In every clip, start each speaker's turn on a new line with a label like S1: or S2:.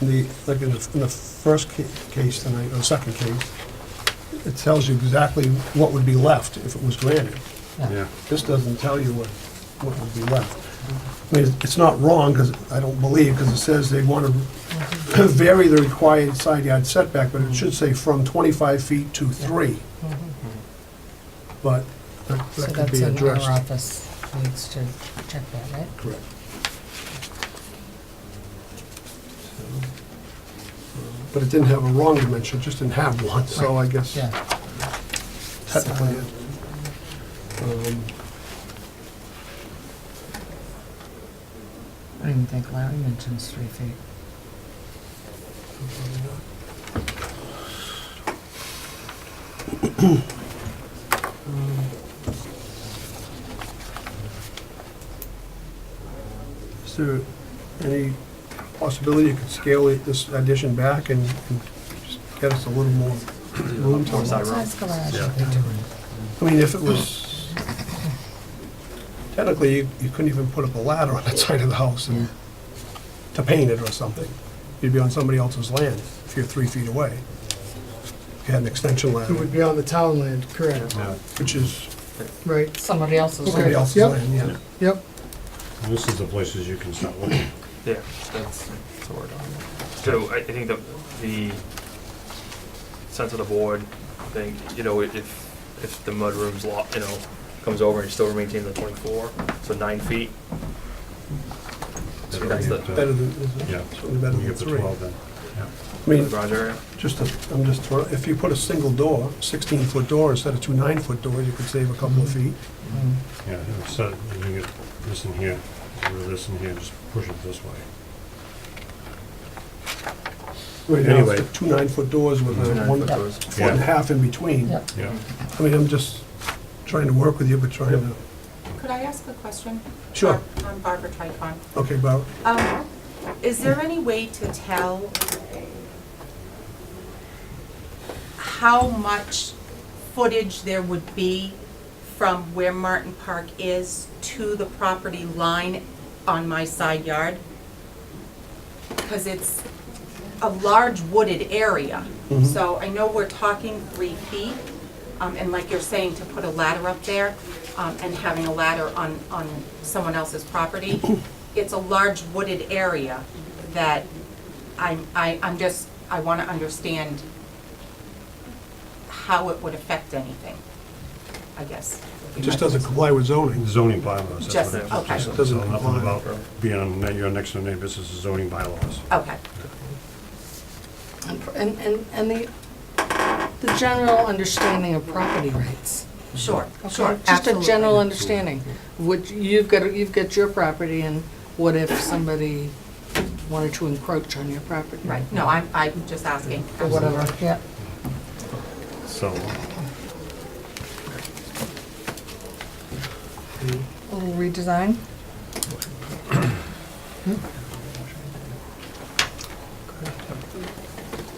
S1: the, like in the, in the first ca- case tonight, or second case, it tells you exactly what would be left if it was granted.
S2: Yeah.
S1: This doesn't tell you what, what would be left. I mean, it's not wrong, because I don't believe, because it says they want to vary the required side yard setback, but it should say from 25 feet to three. But that Mm-hmm.
S3: So
S1: that could
S3: that's
S1: be
S3: in our
S1: addressed.
S3: office, needs to check that, right?
S1: Correct. But it didn't have a wrong dimension, it just didn't have one, so I guess
S3: Yeah,
S1: technically. it- um,
S3: I don't even think Larry mentions three feet.
S1: Is there any possibility you could scale it- this addition back and and just get us a little more room to...
S3: What size garage are they doing?
S1: I mean, if it was, technically, you you couldn't even put up a ladder on that side of the house and, to paint it or something. You'd be on somebody else's land if you're three feet away. If you had an extension
S4: It would
S1: ladder,
S4: be on the town land, correct,
S2: Yeah.
S1: which is
S4: right,
S3: Somebody else's.
S1: somebody
S4: Okay.
S1: else's
S4: Yep.
S1: land, yeah.
S4: yep.
S2: This is the places you can start looking.
S5: Yeah, that's, that's what we're talking about. So I, I think the, the sense of the board, I think, you know, if, if the mudroom's lot, you know, comes over and still maintains the twenty-four, so nine feet, So that's the-
S1: Better than,
S2: Yeah.
S1: certainly better
S2: We
S1: than
S2: get the
S1: three.
S2: twelve then.
S1: I
S5: for the
S1: mean,
S5: garage area.
S1: just, a- I'm just throwing, if you put a single door, 16-foot door instead of two nine-foot doors, you could save a couple of feet.
S3: Mm.
S2: Yeah, and so you can get this in here, or this in here, just push it this way.
S1: Right now, it's
S2: Anyway.
S1: the two nine-foot doors with
S2: Two
S1: a
S5: Nine
S1: uh, one,
S5: foot
S1: foot
S5: goes.
S1: and a
S2: Yeah.
S1: half in between.
S3: Yep.
S6: Mm-hmm.
S2: Yeah.
S1: I mean, I'm just trying to work with you, but trying to,
S6: Could I ask a question?
S1: Sure.
S6: I'm Barbara Tricon.
S1: okay, Bob,
S6: Um, Is there any way to tell how much footage there would be from where Martin Park is to the property line on my side yard? Because it's a large wooded area.
S1: Mhm.
S6: So I know we're talking three feet, um, and like you're saying, to put a ladder up there, um, and having a ladder on, on someone else's property, it's a large wooded area that I'm, I, I'm just, I want to understand how it would affect anything, I guess. would
S1: it
S6: be my
S1: just doesn't
S6: question.
S1: comply with zoning.
S2: Zoning bylaws. that's
S6: Just-
S2: what it is.
S6: okay.
S2: Just-
S1: Doesn't
S2: so Nothing
S1: apply.
S2: about being on ne- your next door neighbor, this is zoning bylaws.
S6: Okay,
S3: And pr- And, and, and the, the general understanding of property rights.
S6: sure,
S3: okay?
S6: sure,
S3: Just a
S6: absolutely.
S3: general understanding. Would, you've got, you've got your property and what if somebody wanted to encroach on your property?
S6: Right, no, I'm, I'm just asking.
S3: Or whatever, yeah.
S2: So,
S3: Little redesign.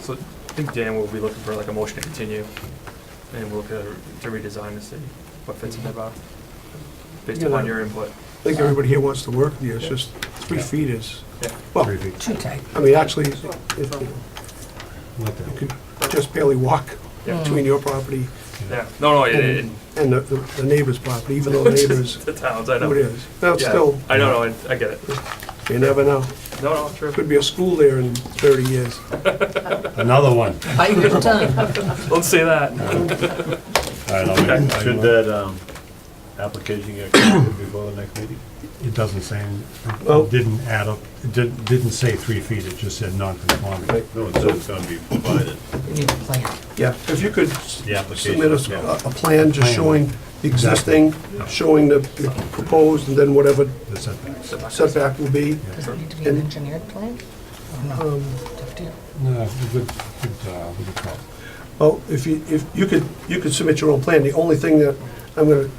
S5: So I think Dan will be looking for like a motion to continue, and we'll look at, to redesign to see what fits in there, Bob,
S1: Mm-hmm.
S5: based
S1: Yeah,
S5: upon
S1: that-
S5: your input.
S1: I think everybody here wants to work with you, it's just three feet is,
S5: Yeah.
S1: well,
S7: Oh.
S2: three feet.
S3: Too tight.
S1: I mean, actually, if you
S2: Not that-
S1: could just barely walk
S5: Yeah.
S1: between your property
S5: Yeah, no, no, it, it,
S1: and and the the neighbor's property, even though the neighbor's,
S5: the towns, I know.
S1: who it is. Now, it's
S5: Yeah,
S1: still,
S5: I know, no, I, I get it.
S1: you never know,
S5: No, no, true.
S1: could be a school there in 30 years.
S2: Another one.
S3: Bite your tongue.
S5: Don't say that.
S2: All right, I'll make-
S7: Should that um, application get accepted before the next meeting?
S2: It doesn't say, any-
S1: Well-
S2: it didn't add up, it didn't, didn't say three feet, it just said non-conforming.
S7: No, it says it's gonna be provided.
S3: You need a plan.
S1: Yeah, if you could s-
S7: The application,
S1: submit us a,
S7: yeah.
S1: a plan just
S2: Plan.
S1: showing the existing,
S2: Yeah.
S1: showing the the proposed, and then whatever
S2: The setbacks.
S1: setback will be.
S3: Does it need to be an engineered plan? Or no? Tough deal.
S2: No, we could, could, uh, we could call.
S1: Well, if you, if, you could, you could submit your own plan. The only thing that I'm gonna,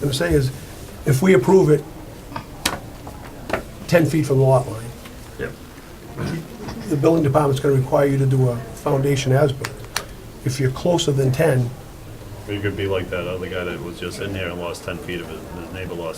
S1: gonna say is, if we approve it ten feet from the lot line,
S5: Yep.
S1: the building department's gonna require you to do a foundation as-built. If you're closer than ten,
S7: It could be like that other guy that was just in there and lost 10 feet of it, and his neighbor lost